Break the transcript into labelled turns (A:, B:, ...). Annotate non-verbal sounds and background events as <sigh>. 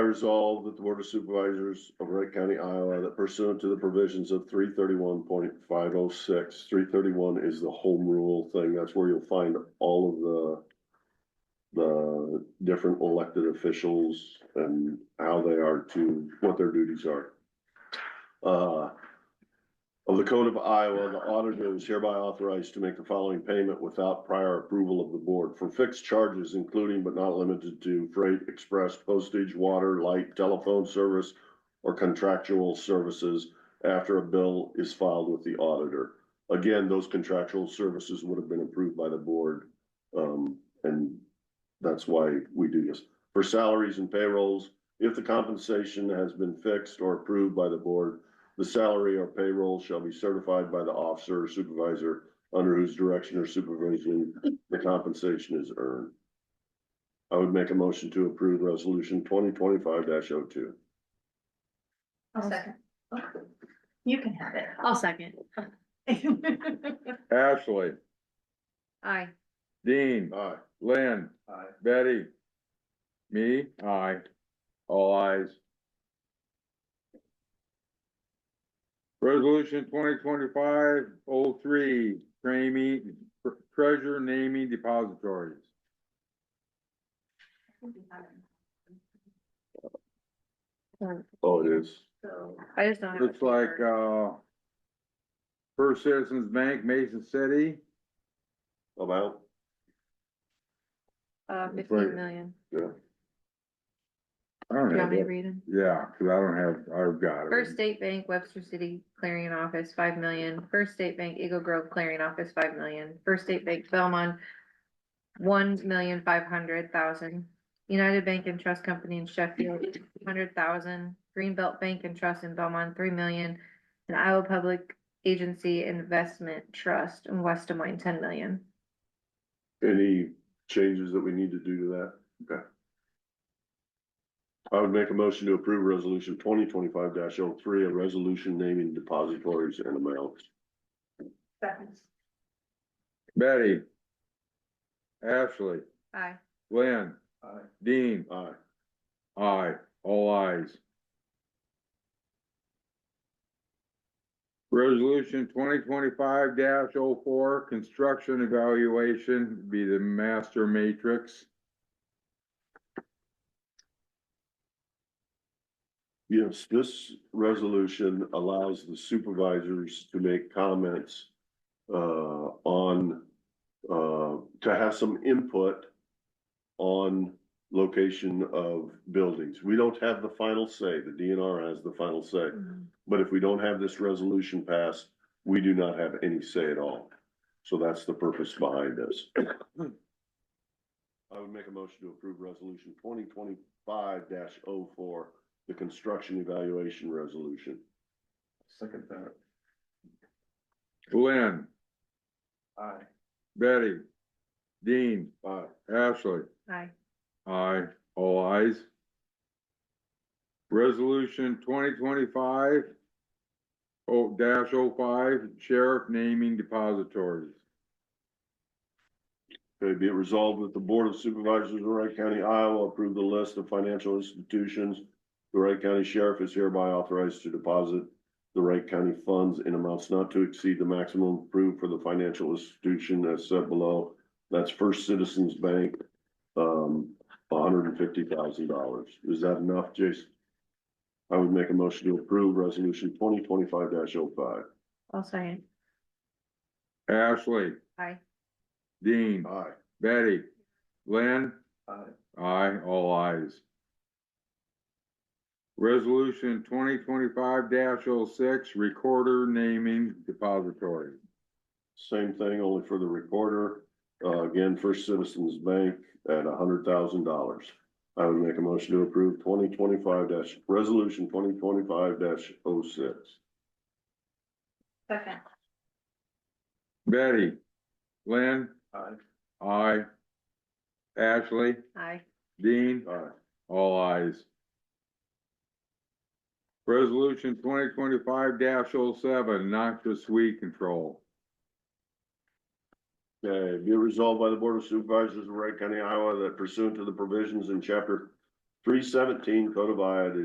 A: resolved that the Board of Supervisors of Wright County, Iowa, that pursuant to the provisions of three thirty-one point five oh six, three thirty-one is the home rule thing. That's where you'll find all of the the different elected officials and how they are to, what their duties are. Uh, of the Code of Iowa, the auditor is hereby authorized to make the following payment without prior approval of the board for fixed charges, including but not limited to freight, express, postage, water, light, telephone service, or contractual services after a bill is filed with the auditor. Again, those contractual services would have been approved by the board, um, and that's why we do this. For salaries and payrolls, if the compensation has been fixed or approved by the board, the salary or payroll shall be certified by the officer or supervisor under whose direction or supervision the compensation is earned. I would make a motion to approve resolution twenty twenty-five oh 2
B: I'll second. You can have it. <laughs> I'll second.
C: Ashley,
B: Aye.
C: Dean,
A: Aye.
C: Lynn,
A: Aye.
C: Betty. Me, aye. All ayes. Resolution twenty twenty-five oh three, naming, treasure naming depositories.
A: Oh, it is.
B: I just don't. have
C: Looks
B: a
C: like,
B: paper.
C: uh. First Citizens Bank, Mason City,
A: About,
B: Uh,
C: it's like-
B: fifteen million.
A: yeah.
C: I don't
B: You want
C: have
B: me to
C: it,
B: read them?
C: yeah, cause I don't have, I've got it.
B: First State Bank, Webster City Clearing and Office, five million. First State Bank, Eagle Grove Clearing Office, five million. First State Bank, Belmont, one million five hundred thousand. United Bank and Trust Company in Sheffield, hundred thousand. Greenbelt Bank and Trust in Belmont, three million. And Iowa Public Agency Investment Trust in West Des Moines, ten million.
A: Any changes that we need to do to that? Okay. I would make a motion to approve resolution twenty twenty-five 3 a resolution naming depositories and amounts.
C: Betty. Ashley,
B: Aye.
C: Lynn,
A: Aye.
C: Dean,
A: Aye.
C: Aye, all ayes. Resolution twenty twenty-five 4 construction evaluation be the master matrix.
A: Yes, this resolution allows the supervisors to make comments uh, on, uh, to have some input on location of buildings. We don't have the final say. The DNR has the final say. But if we don't have this resolution passed, we do not have any say at all. So that's the purpose behind this. I would make a motion to approve resolution twenty twenty-five 4 the construction evaluation resolution. Second that.
C: Lynn,
A: Aye.
C: Betty, Dean,
A: Aye.
C: Ashley.
B: Aye.
C: Aye, all ayes. Resolution twenty twenty-five oh dash oh five, sheriff naming depositories.
A: Okay, be it resolved that the Board of Supervisors of Wright County, Iowa, approve the list of financial institutions. The Wright County Sheriff is hereby authorized to deposit the Wright County funds in amounts not to exceed the maximum approved for the financial institution as set below. That's First Citizens Bank, um, hundred and fifty thousand dollars. Is that enough, Jason? I would make a motion to approve resolution twenty twenty-five oh 5
B: I'll second.
C: Ashley,
B: Aye.
C: Dean.
A: Aye.
C: Betty, Lynn?
A: Aye.
C: Aye, all ayes. Resolution twenty twenty-five 6 recorder naming depository.
A: Same thing, only for the recorder. Uh, again, First Citizens Bank at hundred thousand dollars. I would make a motion to approve twenty twenty-five dash, resolution twenty twenty-five dash oh six.
B: Second.
C: Betty, Lynn? Aye. Aye. Ashley,
B: Aye.
C: Dean?
A: All right,
C: All ayes. Resolution twenty twenty-five oh 7 noxious weed control.
A: okay, be it resolved by the Board of Supervisors of Wright County, Iowa, that pursuant to the provisions in chapter Three seventeen codified